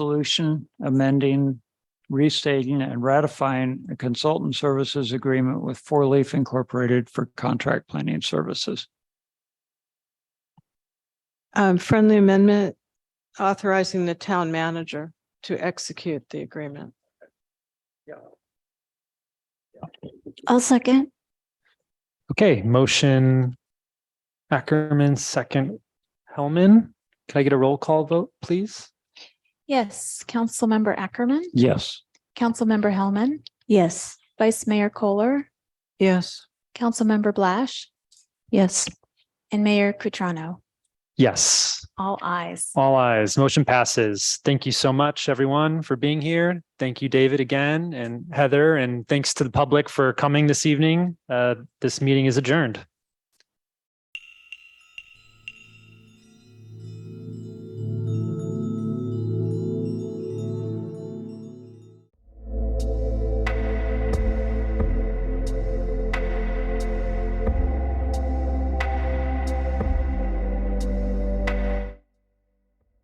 resolution amending, restating and ratifying a consultant services agreement with Four Leaf Incorporated for contract planning services. Um, friendly amendment authorizing the town manager to execute the agreement. I'll second. Okay, motion Ackerman, second Hellman. Can I get a roll call vote, please? Yes, Councilmember Ackerman, Yes. Councilmember Hellman, Yes. Vice Mayor Kohler, Yes. Councilmember Blash, Yes. and Mayor Cutrano. Yes, All eyes. all eyes. Motion passes. Thank you so much, everyone, for being here. Thank you, David, again, and Heather, and thanks to the public for coming this evening. Uh, This meeting is adjourned.